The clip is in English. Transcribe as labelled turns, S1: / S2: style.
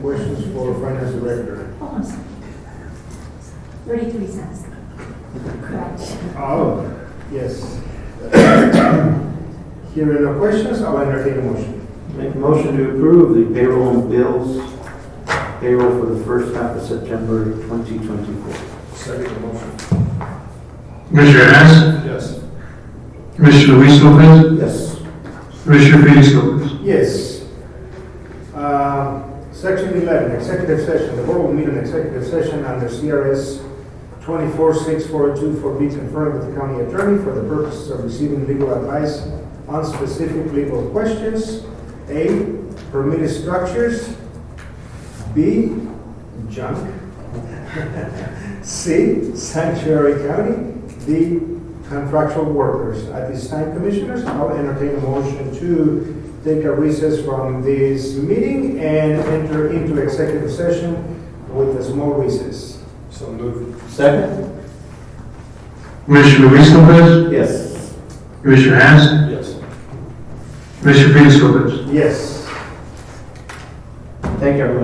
S1: for finance director.
S2: Hold on a second. Thirty-three cents. Correct.
S1: Oh, yes. Hearing no questions, I'll entertain a motion.
S3: Make a motion to approve the payroll and bills payroll for the first half of September 2024.
S1: Second motion.
S4: Commissioner Hess,
S1: Yes.
S4: Commissioner Luis Lopez,
S3: Yes.
S4: Commissioner Felix Lopez.
S1: Yes. Uh, Section 11, executive session. The board will meet in executive session under CRS 246424 for be confirmed with the county attorney for the purposes of receiving legal advice on specific legal questions. A, permitted structures. B, junk. C, sanctuary county. D, contractual workers. At this time, commissioners, I'll entertain a motion to take a recess from this meeting and enter into executive session with a small recess. So moved.
S3: Second?
S4: Commissioner Luis Lopez,
S3: Yes.
S4: Commissioner Hess,
S1: Yes.
S4: Commissioner Felix Lopez.
S1: Yes.
S3: Thank you, everyone.